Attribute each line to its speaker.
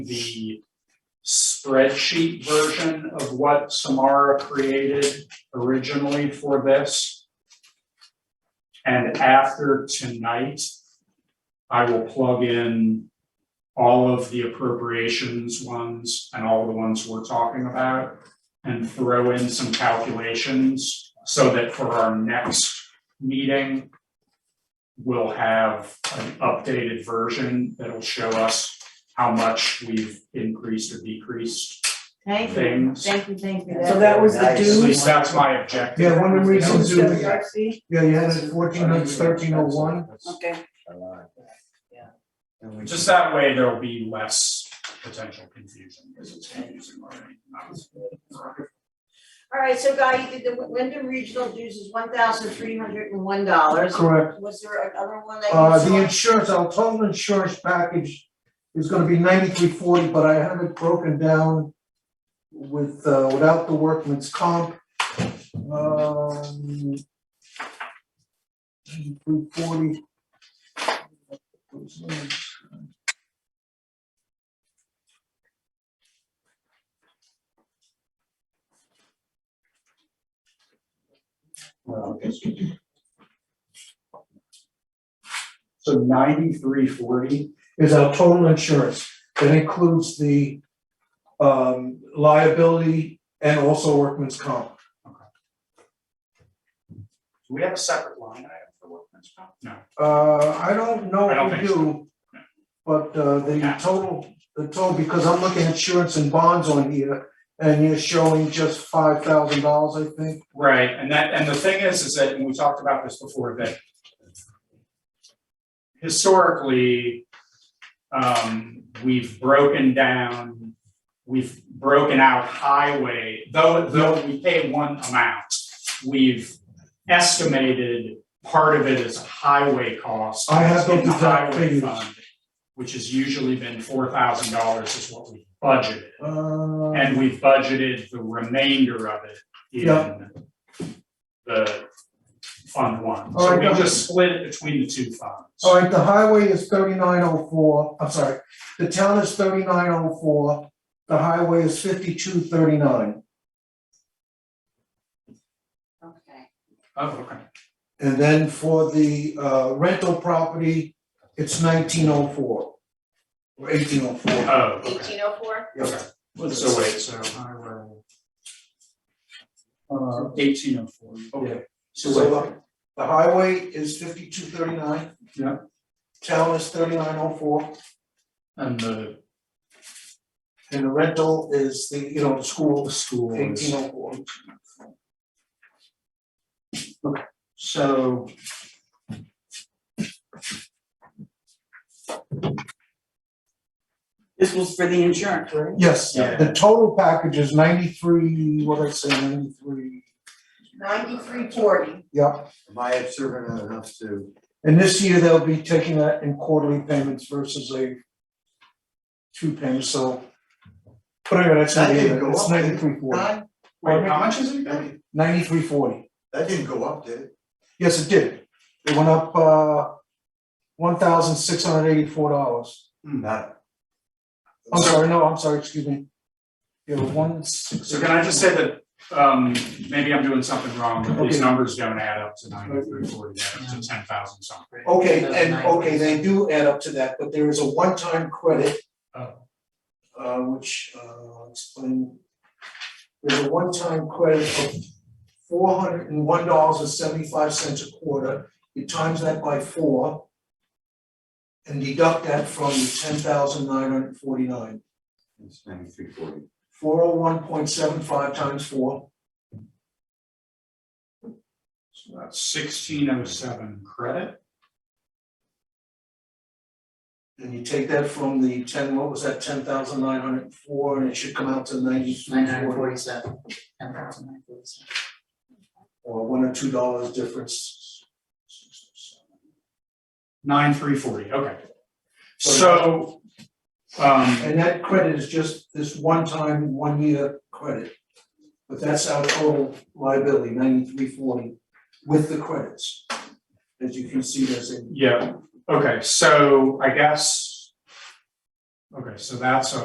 Speaker 1: the spreadsheet version of what Samara created originally for this. And after tonight, I will plug in all of the appropriations ones and all the ones we're talking about and throw in some calculations so that for our next meeting, we'll have an updated version that'll show us how much we've increased or decreased
Speaker 2: Thank you,
Speaker 1: things.
Speaker 2: thank you, thank you.
Speaker 3: So that was the
Speaker 4: Nice.
Speaker 1: At
Speaker 3: dues,
Speaker 1: least that's my objective.
Speaker 3: Yeah, one of the reasons
Speaker 1: That was-
Speaker 3: that- yeah, you had it fourteen hundred, thirteen oh one,
Speaker 2: Okay,
Speaker 1: Just that way, there'll be less potential confusion, because it's confusing already. That was-
Speaker 2: all right, so Guy, you did the Wyndham Regional dues is one thousand three hundred and one dollars.
Speaker 3: correct.
Speaker 2: Was there another one that you
Speaker 3: Uh, the
Speaker 2: saw?
Speaker 3: insurance, our total insurance package is gonna be ninety-three forty, but I have it broken down with, uh, without the workman's comp. Um. Ninety-three forty.
Speaker 1: So ninety-three forty,
Speaker 3: is our total insurance. That includes the um liability and also workman's comp.
Speaker 1: do we have a separate line item for workman's comp? No,
Speaker 3: Uh, I don't know
Speaker 1: I don't
Speaker 3: if
Speaker 1: think
Speaker 3: we
Speaker 1: so.
Speaker 3: do, but uh the
Speaker 1: Yeah.
Speaker 3: total, the total, because I'm looking at insurance and bonds on here and you're showing just five thousand dollars, I think.
Speaker 1: right, and that, and the thing is, is that, and we talked about this before, that historically, um, we've broken down, we've broken out highway, though, though we pay one amount, we've estimated part of it as highway cost.
Speaker 3: I have those
Speaker 1: in the
Speaker 3: exact
Speaker 1: highway
Speaker 3: figures.
Speaker 1: fund, Which has usually been four thousand dollars is what we budgeted.
Speaker 3: Uh,
Speaker 1: And we've budgeted the remainder of it
Speaker 3: Yeah.
Speaker 1: in the fund one.
Speaker 3: All
Speaker 1: So
Speaker 3: right,
Speaker 1: we
Speaker 3: got it.
Speaker 1: just split it between the two funds.
Speaker 3: Alright, the highway is thirty-nine oh four, I'm sorry, the town is thirty-nine oh four, the highway is fifty-two thirty-nine.
Speaker 2: Okay,
Speaker 1: Oh, okay.
Speaker 3: And then for the uh rental property, it's nineteen oh four. Or eighteen oh four.
Speaker 1: Oh, okay.
Speaker 2: eighteen oh four?
Speaker 1: Okay. So wait, so I will. Uh, eighteen oh four. Okay.
Speaker 3: So,
Speaker 1: So
Speaker 3: uh, The highway is fifty-two thirty-nine.
Speaker 1: Yeah.
Speaker 3: Town is thirty-nine oh four,
Speaker 1: wait, and the
Speaker 3: and the rental is the, you know, the school,
Speaker 1: school
Speaker 3: eighteen
Speaker 1: is,
Speaker 3: oh four.
Speaker 1: so.
Speaker 5: This was for the insurance, right?
Speaker 3: Yes,
Speaker 1: Yeah.
Speaker 3: the total package is ninety-three, what did I say, ninety-three,
Speaker 2: Ninety-three forty,
Speaker 3: yep.
Speaker 4: Am I observant enough to,
Speaker 3: And this year they'll be taking that in quarterly payments versus a two payments, so. But anyway, that's not
Speaker 4: That didn't
Speaker 3: it,
Speaker 4: go
Speaker 3: it's
Speaker 4: up,
Speaker 3: ninety-three forty,
Speaker 4: Don,
Speaker 1: Wait, how much is it
Speaker 4: that,
Speaker 1: again?
Speaker 3: ninety-three forty,
Speaker 4: that didn't go up, did it?
Speaker 3: yes, it did, it went up uh one thousand six hundred eighty-four dollars.
Speaker 4: Not.
Speaker 3: I'm sorry, no, I'm sorry, excuse me. Yeah, one six.
Speaker 1: So can I just say that, um, maybe I'm doing something wrong, but these
Speaker 3: Okay.
Speaker 1: numbers don't add up to ninety-three forty, they add up to ten thousand something.
Speaker 3: Okay, and okay, they do add up to that, but there is a one-time credit.
Speaker 1: Oh.
Speaker 3: Uh, which, uh, I'll explain, there's a one-time credit of four hundred and one dollars and seventy-five cents a quarter, you times that by four. And deduct that from the ten thousand nine hundred forty-nine,
Speaker 4: It's ninety-three forty.
Speaker 3: four oh one point seven five times four,
Speaker 1: So that's sixteen oh seven credit,
Speaker 3: and you take that from the ten, what was that, ten thousand nine hundred four, and it should come out to ninety-three forty.
Speaker 5: forty-seven, ten thousand nine forty-seven.
Speaker 3: or uh, one or two dollars difference.
Speaker 1: nine three forty, okay. So, um,
Speaker 3: And that credit is just this one time, one year credit. But that's our total liability, ninety-three forty, with the credits. As you can see, there's a
Speaker 1: yeah, okay, so I guess. Okay, so that's a